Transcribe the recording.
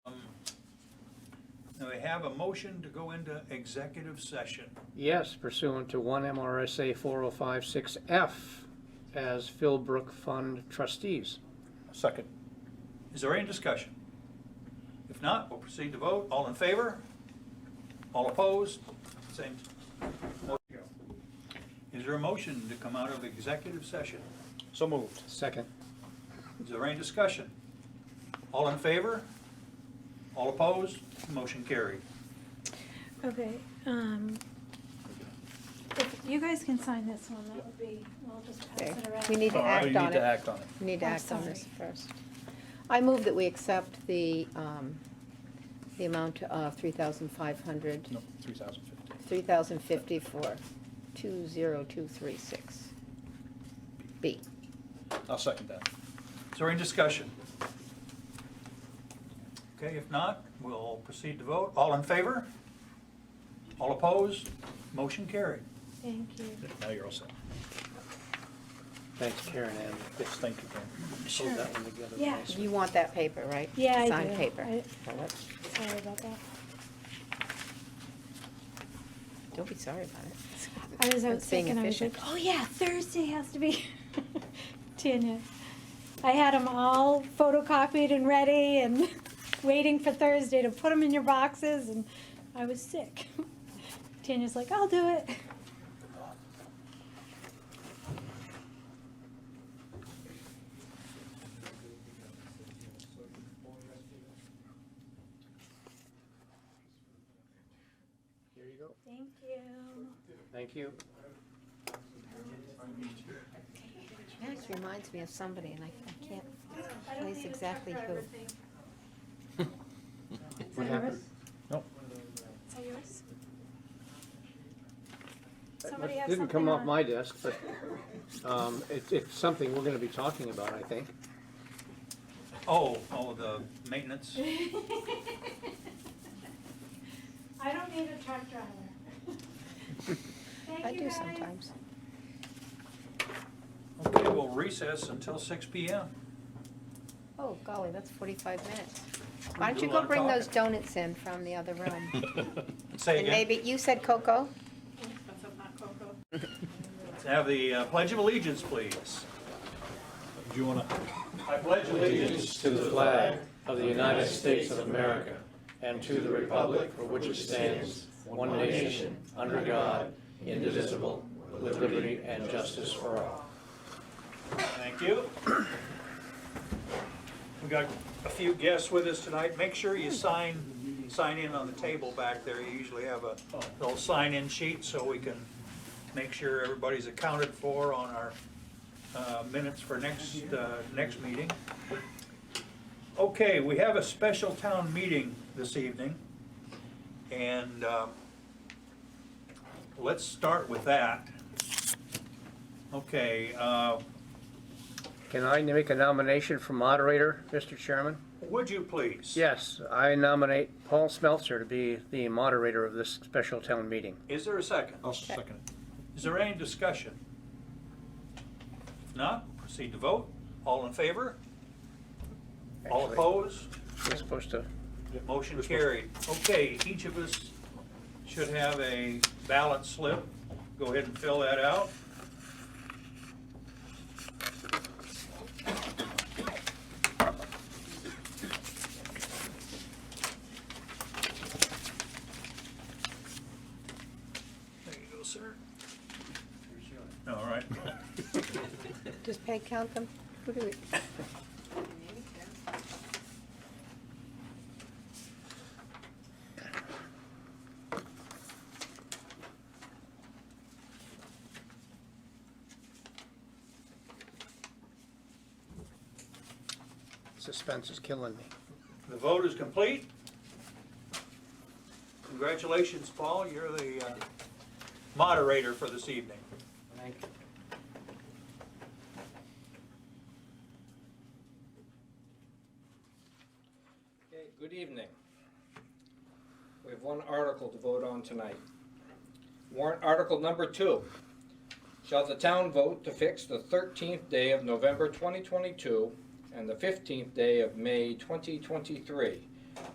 Now, we have a motion to go into executive session. Yes, pursuant to one MRSA 4056F as Philbrook Fund trustees. Second. Is there any discussion? If not, we'll proceed to vote. All in favor? All opposed? Same. Is there a motion to come out of executive session? So moved. Second. Is there any discussion? All in favor? All opposed? Motion carried. Okay, um, if you guys can sign this one, that would be, we'll just pass Okay, it around. we need to act We on need to it. act on it. We need to I'm act on this Oh, sorry. first. I move that we accept the, um, the amount of three thousand five hundred, No, three thousand fifty. three thousand fifty for two zero two three six. B. I'll second that. Is there any discussion? Okay, if not, we'll proceed to vote. All in favor? All opposed? Motion carried. Thank you. Now you're all set. Thanks, Karen Ann. Yes, thank you, Karen. Hold that one together Yeah. nicely. You want that paper, right? Yeah, I do. Signed paper. I- Well, let's- Sorry about that. Don't be sorry about it. I was out It's being sick and I was like, efficient. oh yeah, Thursday has to be. Tanya, I had them all photocopied and ready and waiting for Thursday to put them in your boxes and I was sick. Tanya's like, I'll do it. Here you go. Thank you. Thank you. Max reminds me of somebody, and I I can't I don't place need to exactly check for who. everything. Is What that happened? yours? Nope. Is that yours? That Somebody have Didn't come something off on- my desk, but um, it- it's something we're going to be talking about, I think. Oh, oh, the maintenance. I don't need a truck driver. I Thank you do guys. sometimes. Okay, we'll recess until six P M. Oh, golly, that's forty-five minutes. We Why do don't you a lot go of bring those talking. donuts in from the other room? Say And again. maybe, you said cocoa? Have the uh, Pledge of Allegiance, please. Do you wanna? I pledge allegiance To the flag of the United States of America and to the republic for which it stands, one nation, under God, indivisible, with liberty and justice for all. Thank you. We got a few guests with us tonight. Make sure you sign, sign in on the table back there. You usually have a little sign-in sheet so we can make sure everybody's accounted for on our uh, minutes for next, uh, next meeting. Okay, we have a special town meeting this evening. And uh, let's start with that. Okay, uh, Can I make a nomination for moderator, Mr. Chairman? Would you please? Yes, I nominate Paul Smeltzer to be the moderator of this special town meeting. Is there a second? I'll second it. Is there any discussion? If not, proceed to vote. All in favor? All Actually, opposed? We're supposed to, Motion carried. Okay, each of us should have a ballot slip. Go ahead and fill that out. There you go, sir. All right. Does Peg count them? Who do we? suspense is killing me. The vote is complete. Congratulations, Paul, you're the uh, moderator for this evening. Thank you. Okay, good evening. We have one article to vote on tonight. Warrant Article Number Two. Shall the town vote to fix the thirteenth day of November twenty twenty-two and the fifteenth day of May twenty twenty-three